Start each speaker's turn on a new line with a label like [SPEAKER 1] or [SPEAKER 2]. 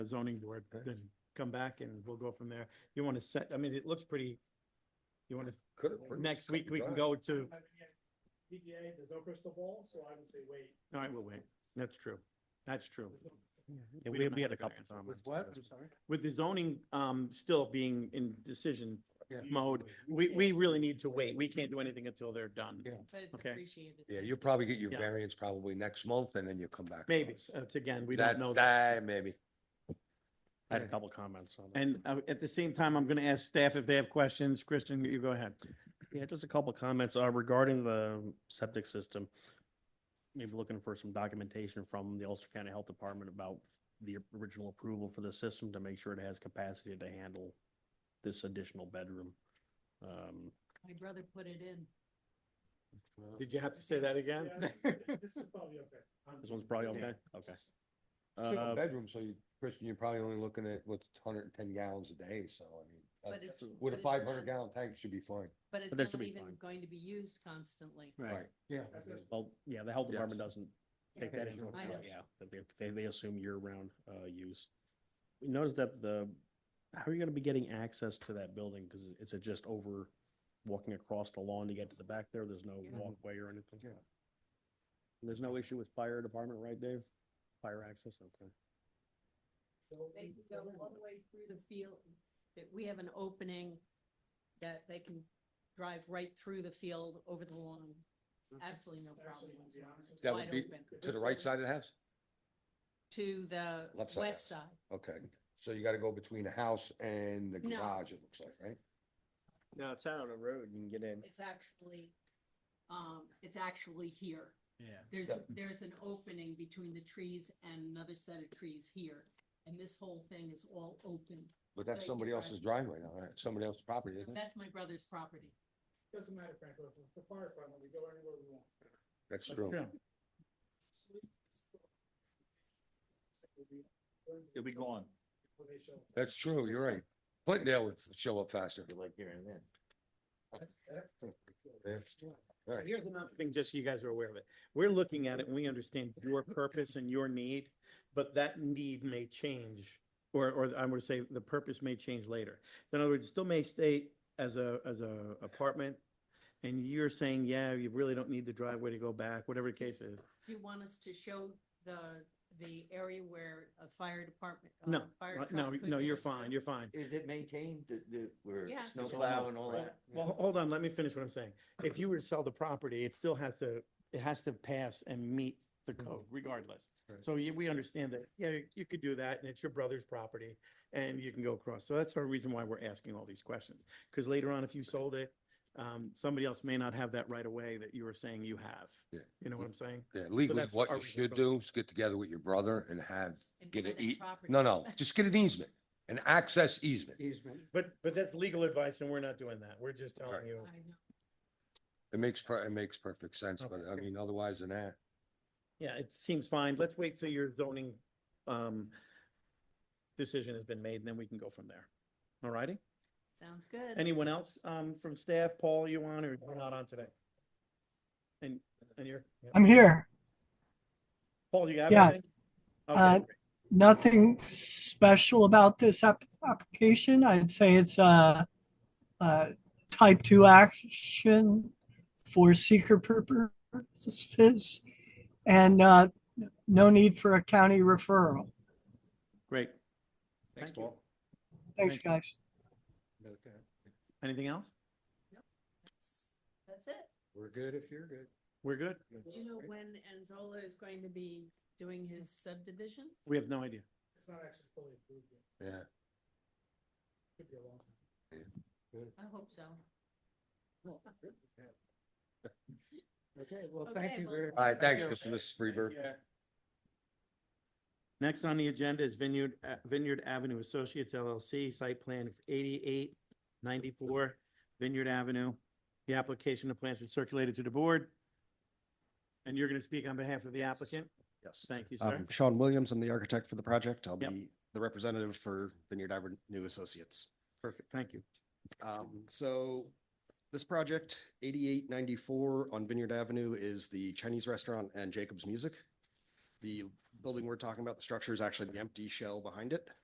[SPEAKER 1] the zoning board,
[SPEAKER 2] Okay.
[SPEAKER 1] then come back and we'll go from there. You want to set, I mean, it looks pretty, you want to,
[SPEAKER 2] Could have.
[SPEAKER 1] next week we can go to,
[SPEAKER 3] PGA, there's no crystal ball, so I would say wait.
[SPEAKER 1] all right, we'll wait. That's true. That's true. We
[SPEAKER 4] Yeah, we,
[SPEAKER 1] don't
[SPEAKER 4] we
[SPEAKER 1] have
[SPEAKER 4] had a
[SPEAKER 1] the
[SPEAKER 4] couple
[SPEAKER 1] answer.
[SPEAKER 4] comments.
[SPEAKER 2] With
[SPEAKER 4] on
[SPEAKER 2] what?
[SPEAKER 4] this.
[SPEAKER 2] I'm sorry.
[SPEAKER 1] With the zoning, um, still being in decision
[SPEAKER 2] Yeah.
[SPEAKER 1] mode, we, we really need to wait. We can't do anything until they're done.
[SPEAKER 2] Yeah.
[SPEAKER 5] But it's
[SPEAKER 1] Okay.
[SPEAKER 5] appreciated.
[SPEAKER 2] Yeah, you'll probably get your
[SPEAKER 1] Yeah.
[SPEAKER 2] variance probably next month and then you'll come back. to
[SPEAKER 1] Maybe,
[SPEAKER 2] us.
[SPEAKER 1] that's again, we
[SPEAKER 2] That,
[SPEAKER 1] don't know. that.
[SPEAKER 2] that, maybe.
[SPEAKER 4] I had a couple comments on that.
[SPEAKER 1] And uh, at the same time, I'm going to ask staff if they have questions. Kristen, you go ahead.
[SPEAKER 4] Yeah, just a couple comments uh, regarding the septic system. Maybe looking for some documentation from the Ulster County Health Department about the original approval for the system to make sure it has capacity to handle this additional bedroom. Um,
[SPEAKER 5] My brother put it in.
[SPEAKER 1] Did you have to say that again?
[SPEAKER 3] Yeah, This is probably okay.
[SPEAKER 4] This one's probably
[SPEAKER 1] Yeah.
[SPEAKER 4] okay? Okay.
[SPEAKER 2] Single
[SPEAKER 4] Uh,
[SPEAKER 2] bedroom, so you, Christian, you're probably only looking at what's hundred and ten gallons a day, so I
[SPEAKER 5] But
[SPEAKER 2] mean. that's-
[SPEAKER 5] it's- but
[SPEAKER 2] Uh, With a
[SPEAKER 5] it's
[SPEAKER 2] five hundred
[SPEAKER 5] not-
[SPEAKER 2] gallon tank, should be fine.
[SPEAKER 5] But it's
[SPEAKER 4] But that should
[SPEAKER 5] not
[SPEAKER 4] be
[SPEAKER 5] even
[SPEAKER 4] fine.
[SPEAKER 5] going to be used constantly.
[SPEAKER 4] Right.
[SPEAKER 2] Yeah.
[SPEAKER 4] Well, yeah, the health
[SPEAKER 2] Yes.
[SPEAKER 4] department doesn't take that into
[SPEAKER 2] Occasional
[SPEAKER 4] account,
[SPEAKER 5] use.
[SPEAKER 4] yeah, that they, they, they assume year-round, uh, use. We noticed that the, how are you gonna be getting access to that building? Cause is it just over walking across the lawn to get to the back there? There's no
[SPEAKER 5] Yeah.
[SPEAKER 4] walkway or anything? Yeah. There's no issue with fire department, right, Dave? Fire access, okay.
[SPEAKER 5] They can go all the way through the field, that we have an opening that they can drive right through the field over the lawn. Absolutely no problem.
[SPEAKER 3] Mm-hmm. Actually, to be honest with you,
[SPEAKER 2] That
[SPEAKER 5] Wide
[SPEAKER 2] would be
[SPEAKER 5] open.
[SPEAKER 2] to the right side of the house?
[SPEAKER 5] To the
[SPEAKER 2] Left side.
[SPEAKER 5] west side.
[SPEAKER 2] Okay, so you gotta go between the house and the
[SPEAKER 5] No.
[SPEAKER 2] garage, it looks like, right?
[SPEAKER 4] No, it's out on the road, you can get in.
[SPEAKER 5] It's actually, um, it's actually here.
[SPEAKER 1] Yeah.
[SPEAKER 5] There's,
[SPEAKER 2] Yeah.
[SPEAKER 5] there's an opening between the trees and another set of trees here. And this whole thing is all open.
[SPEAKER 2] But
[SPEAKER 5] So
[SPEAKER 2] that's
[SPEAKER 5] you
[SPEAKER 2] somebody
[SPEAKER 5] can
[SPEAKER 2] else's
[SPEAKER 5] drive.
[SPEAKER 2] driveway now, right? Somebody else's property, isn't it?
[SPEAKER 5] That's my brother's property.
[SPEAKER 3] Doesn't matter, Frank, if it's a fire department, we go anywhere we want.
[SPEAKER 2] That's true.
[SPEAKER 1] Yeah.
[SPEAKER 3] It'll be gone.
[SPEAKER 2] That's true, you're right. Clintondale would show up faster. Like here and then. Right.
[SPEAKER 1] Here's another thing, just so you guys are aware of it. We're looking at it and we understand your purpose and your need, but that need may change. Or, or I'm gonna say the purpose may change later. In other words, it still may stay as a, as a apartment. And you're saying, yeah, you really don't need the driveway to go back, whatever the case is.
[SPEAKER 5] Do you want us to show the, the area where a fire department? uh,
[SPEAKER 1] No,
[SPEAKER 5] fire
[SPEAKER 1] uh,
[SPEAKER 5] truck
[SPEAKER 1] no,
[SPEAKER 5] could
[SPEAKER 1] no, you're
[SPEAKER 5] go
[SPEAKER 1] fine,
[SPEAKER 5] through?
[SPEAKER 1] you're fine.
[SPEAKER 6] Is it maintained, the, the, where
[SPEAKER 5] Yeah.
[SPEAKER 6] snowplow and all that?
[SPEAKER 1] Well, ho- hold on, let me finish what I'm saying. If you were to sell the property, it still has to, it has to pass and meet the code regardless.
[SPEAKER 2] Mm-hmm. Right.
[SPEAKER 1] So you- we understand that, yeah, you could do that and it's your brother's property and you can go across. So that's our reason why we're asking all these questions. Because later on, if you sold it, um, somebody else may not have that right away that you were saying you have.
[SPEAKER 2] Yeah.
[SPEAKER 1] You know what I'm saying?
[SPEAKER 2] Yeah, legally,
[SPEAKER 1] that's
[SPEAKER 2] what
[SPEAKER 1] our
[SPEAKER 2] you should
[SPEAKER 1] responsibility.
[SPEAKER 2] do is get together with your brother and have,
[SPEAKER 5] And
[SPEAKER 2] get
[SPEAKER 5] for
[SPEAKER 2] an
[SPEAKER 5] that
[SPEAKER 2] ea,
[SPEAKER 5] property.
[SPEAKER 2] no, no, just get an easement, an access easement.
[SPEAKER 1] But, but that's legal advice and we're not doing that. We're just telling
[SPEAKER 2] Right.
[SPEAKER 1] you.
[SPEAKER 5] I know.
[SPEAKER 2] It makes, per- it makes perfect sense, but I mean, otherwise than that,
[SPEAKER 1] Yeah, it seems fine. Let's wait till your zoning, um, decision has been made and then we can go from there. All righty?
[SPEAKER 5] Sounds good.
[SPEAKER 1] Anyone else, um, from staff? Paul, you on or you're not on today? And, and you're?
[SPEAKER 7] I'm here.
[SPEAKER 1] Paul, you have
[SPEAKER 7] Yeah.
[SPEAKER 1] anything?
[SPEAKER 7] Uh,
[SPEAKER 1] Okay,
[SPEAKER 7] Nothing special about this app- application. I'd say it's a, a type two action for seeker purposes and uh, no need for a county referral.
[SPEAKER 1] great.
[SPEAKER 2] Thanks,
[SPEAKER 1] Thank you.
[SPEAKER 2] Paul.
[SPEAKER 7] Thanks,
[SPEAKER 1] Thank you.
[SPEAKER 7] guys.
[SPEAKER 1] Anything else?
[SPEAKER 5] That's- That's it.
[SPEAKER 2] we're good if you're good.
[SPEAKER 1] We're good?
[SPEAKER 5] Do you know when Anzola is going to be doing his subdivision?
[SPEAKER 1] We have no idea.
[SPEAKER 3] It's not actually fully approved yet.
[SPEAKER 2] Yeah.
[SPEAKER 3] Could be a long time.
[SPEAKER 5] I hope so.
[SPEAKER 3] Okay, well,
[SPEAKER 5] thank you very
[SPEAKER 2] All right, thanks, Mr. and Mrs. Freeburg.
[SPEAKER 1] Next on the agenda is Vineyard, uh, Vineyard Avenue Associates LLC, site plan eighty-eight ninety-four Vineyard Avenue. The application, the plans were circulated to the board. And you're gonna speak on behalf of the applicant?
[SPEAKER 8] Yes.
[SPEAKER 1] Thank you, sir.
[SPEAKER 8] Um, Sean Williams, I'm the architect for the project. I'll
[SPEAKER 1] Yep.
[SPEAKER 8] be the representative for Vineyard Avenue Associates.
[SPEAKER 1] Perfect, thank you.
[SPEAKER 8] Um, so this project, eighty-eight ninety-four on Vineyard Avenue is the Chinese restaurant and Jacob's Music. The building we're talking about, the structure is actually the empty shell behind it.